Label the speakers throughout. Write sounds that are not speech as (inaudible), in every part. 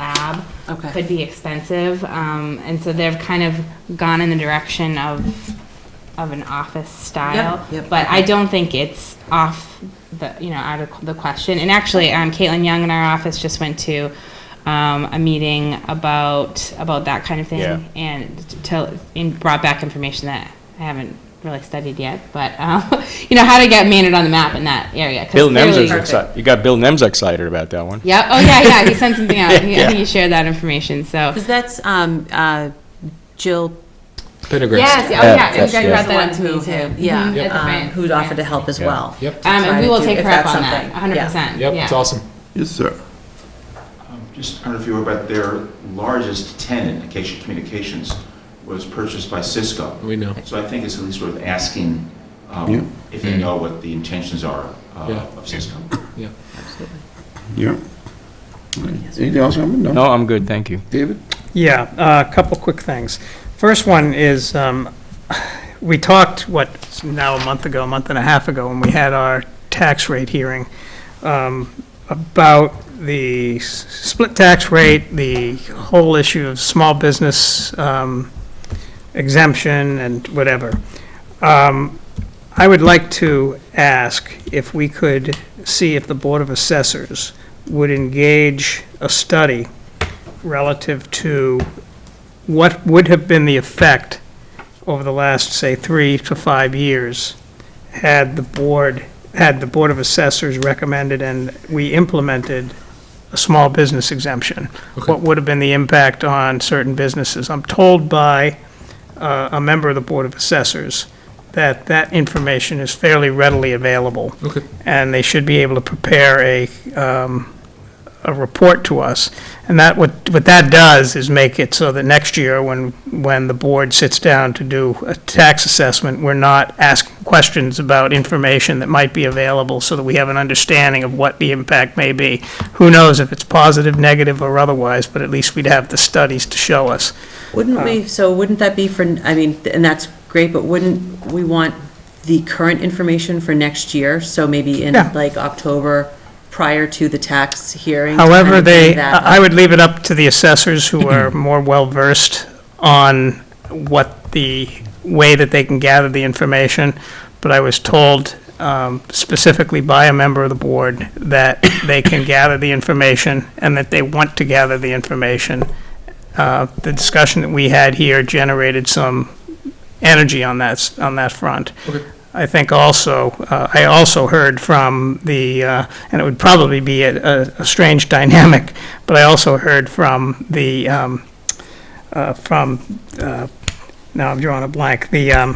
Speaker 1: lab
Speaker 2: Okay.
Speaker 1: could be expensive. Um, and so they've kind of gone in the direction of, of an office style.
Speaker 2: Yep, yep.
Speaker 1: But I don't think it's off the, you know, out of the question. And actually, um, Caitlin Young in our office just went to, um, a meeting about, about that kind of thing.
Speaker 3: Yeah.
Speaker 1: And to, and brought back information that I haven't really studied yet, but, um, (laughs) you know, how to get Maynard on the map in that area. 'cause
Speaker 3: Bill Nemz's
Speaker 1: clearly-
Speaker 3: excited, you got Bill Nemz excited about that one.
Speaker 1: Yep. Oh, yeah, yeah. He sent
Speaker 3: (laughs)
Speaker 1: something out. He- I
Speaker 3: Yeah.
Speaker 1: think he shared that information. So.
Speaker 2: Because that's um, uh, Jill,
Speaker 3: Pendergrass.
Speaker 1: Yes. Oh,
Speaker 3: Yeah,
Speaker 1: yeah. I'm
Speaker 3: that's-
Speaker 1: glad you
Speaker 3: yeah.
Speaker 1: brought
Speaker 2: the one
Speaker 1: that up to
Speaker 2: who,
Speaker 1: me too.
Speaker 2: yeah,
Speaker 1: Mhm, at the
Speaker 2: um,
Speaker 1: Fran-
Speaker 2: who'd offered to help as
Speaker 3: Yeah.
Speaker 2: well.
Speaker 4: Yep.
Speaker 1: Um, and we will take
Speaker 2: If
Speaker 1: her up
Speaker 2: that's
Speaker 1: on that.
Speaker 2: something.
Speaker 1: 100. percent
Speaker 3: Yep, it's awesome.
Speaker 5: Yes, sir.
Speaker 6: Just, I don't know if you were aware, but their largest tenant, Acacia Communications, was purchased by Cisco.
Speaker 4: We know.
Speaker 6: So I think it's at least worth asking um,
Speaker 5: Yeah.
Speaker 6: if they know what the intentions are uh,
Speaker 4: Yeah.
Speaker 6: of Cisco.
Speaker 5: Yeah. Anything else, Norman? No?
Speaker 3: No, I'm good, thank you.
Speaker 5: David?
Speaker 7: Yeah, uh, a couple quick things. First one is, um, we talked, what, now a month ago, a month and a half ago, when we had our tax rate hearing, um, about the s- split tax rate, the whole issue of small business um, exemption and whatever. Um, I would like to ask if we could see if the Board of Assessors would engage a study relative to what would have been the effect over the last, say, three to five years had the board, had the Board of Assessors recommended and we implemented a small business exemption?
Speaker 4: Okay.
Speaker 7: What would have been the impact on certain businesses? I'm told by uh, a member of the Board of Assessors that that information is fairly readily available
Speaker 4: Okay.
Speaker 7: and they should be able to prepare a, um, a report to us. And that, what, what that does is make it so that next year, when, when the board sits down to do a tax assessment, we're not asking questions about information that might be available, so that we have an understanding of what the impact may be. Who knows if it's positive, negative, or otherwise, but at least we'd have the studies to show us.
Speaker 2: Wouldn't we, so wouldn't that be for, I mean, and that's great, but wouldn't we want the current information for next year? So maybe in
Speaker 7: Yeah.
Speaker 2: like October, prior to the tax hearing? to kind
Speaker 7: However,
Speaker 2: of bring
Speaker 7: they,
Speaker 2: that
Speaker 7: I I
Speaker 2: up?
Speaker 7: would leave it up to the assessors who are more well-versed on what the way that they can gather the information, but I was told um, specifically by a member of the board that they can gather the information and that they want to gather the information. Uh, The discussion that we had here generated some energy on that, s- on that front. I think also, uh, I also heard from the, uh, and it would probably be a, a, a strange (laughs) dynamic, but I also heard from the, um, uh, from, uh, now I'm drawing a blank, the, um,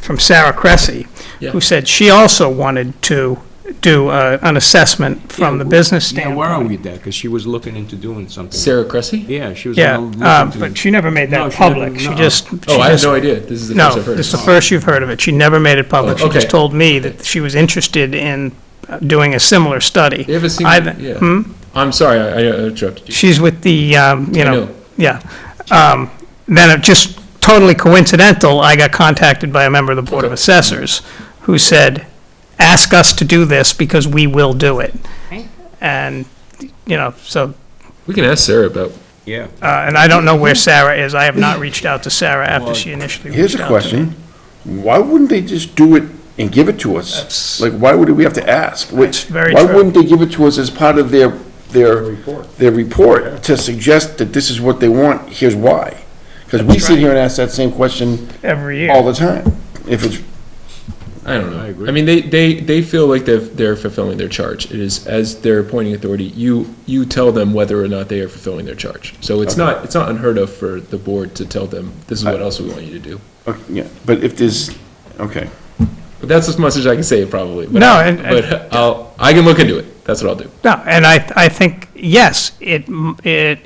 Speaker 7: from Sarah Cressy,
Speaker 4: Yeah.
Speaker 7: who said she also wanted to do uh, an assessment from the business
Speaker 3: Yeah, where are
Speaker 7: standpoint.
Speaker 3: we at that? Because she was looking into doing something.
Speaker 4: Sarah Cressy?
Speaker 3: Yeah, she was.
Speaker 7: Yeah,
Speaker 3: looking
Speaker 7: uh,
Speaker 3: to-
Speaker 7: but she never made
Speaker 3: No,
Speaker 7: that
Speaker 3: she never-
Speaker 7: public. She
Speaker 3: nuh-uh.
Speaker 7: just, she
Speaker 4: Oh, I have
Speaker 7: just
Speaker 4: no idea. This is the
Speaker 7: No,
Speaker 4: first I've heard.
Speaker 7: this is the
Speaker 4: of it.
Speaker 7: first you've heard of it. She never made it public.
Speaker 4: Oh,
Speaker 7: She
Speaker 4: okay.
Speaker 7: just told me that she was interested in uh, doing a similar study.
Speaker 4: You ever seen-
Speaker 7: I've-
Speaker 4: yeah.
Speaker 7: Hmm?
Speaker 4: I'm sorry, I I interrupted you.
Speaker 7: She's with the, um, you
Speaker 4: I
Speaker 7: know,
Speaker 4: know.
Speaker 7: yeah. Um, Then it just totally coincidental, I got contacted by a member of the Board of
Speaker 4: Okay.
Speaker 7: Assessors who said, ask us to do this because we will do it.
Speaker 1: Okay.
Speaker 7: And, you know, so,
Speaker 4: We can ask Sarah about,
Speaker 3: Yeah.
Speaker 7: uh, and I don't know where Sarah is. I have not reached out to Sarah after she initially reached out.
Speaker 5: Here's a
Speaker 7: to me.
Speaker 5: question. Why wouldn't they just do it and give it to us?
Speaker 7: That's-
Speaker 5: Like, why would we have to ask? Which,
Speaker 7: very
Speaker 5: why
Speaker 7: true.
Speaker 5: wouldn't they give it to us as part of their, their, their report to suggest that this is what they want, here's why? Because we sit here and ask that same question
Speaker 7: Every year.
Speaker 5: all the time. If it's,
Speaker 4: I don't know.
Speaker 3: I agree.
Speaker 4: I mean, they, they, they feel like they're, they're fulfilling their charge. It is, as their appointing authority, you, you tell them whether or not they are fulfilling their charge. So it's not, it's not unheard of for the board to tell them, this is what else we want you to do.
Speaker 5: okay, uh, yeah, but if there's, okay.
Speaker 4: But that's as much as I can say probably. But
Speaker 7: No,
Speaker 4: I-
Speaker 7: and-
Speaker 4: But I'll, I can look into it. That's what I'll do.
Speaker 7: No, and I, I think, yes, it, it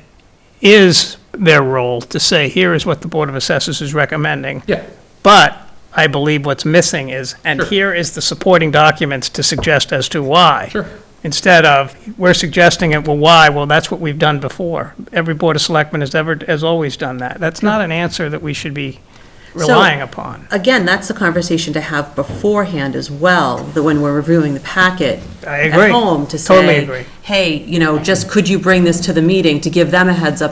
Speaker 7: is their role to say, here is what the Board of Assessors is recommending.
Speaker 4: Yeah.
Speaker 7: But I believe what's missing is, and
Speaker 4: Sure.
Speaker 7: here is the supporting documents to suggest as to why.
Speaker 4: Sure.
Speaker 7: Instead of, we're suggesting it, well, why? Well, that's what we've done before. Every Board of Selectmen has ever, has always done that. That's not an answer that we should be relying upon.
Speaker 2: Again, that's the conversation to have beforehand as well, that when we're reviewing the packet.
Speaker 7: I agree.
Speaker 2: At home to say.
Speaker 7: Totally agree.
Speaker 2: Hey, you know, just could you bring this to the meeting to give them a heads up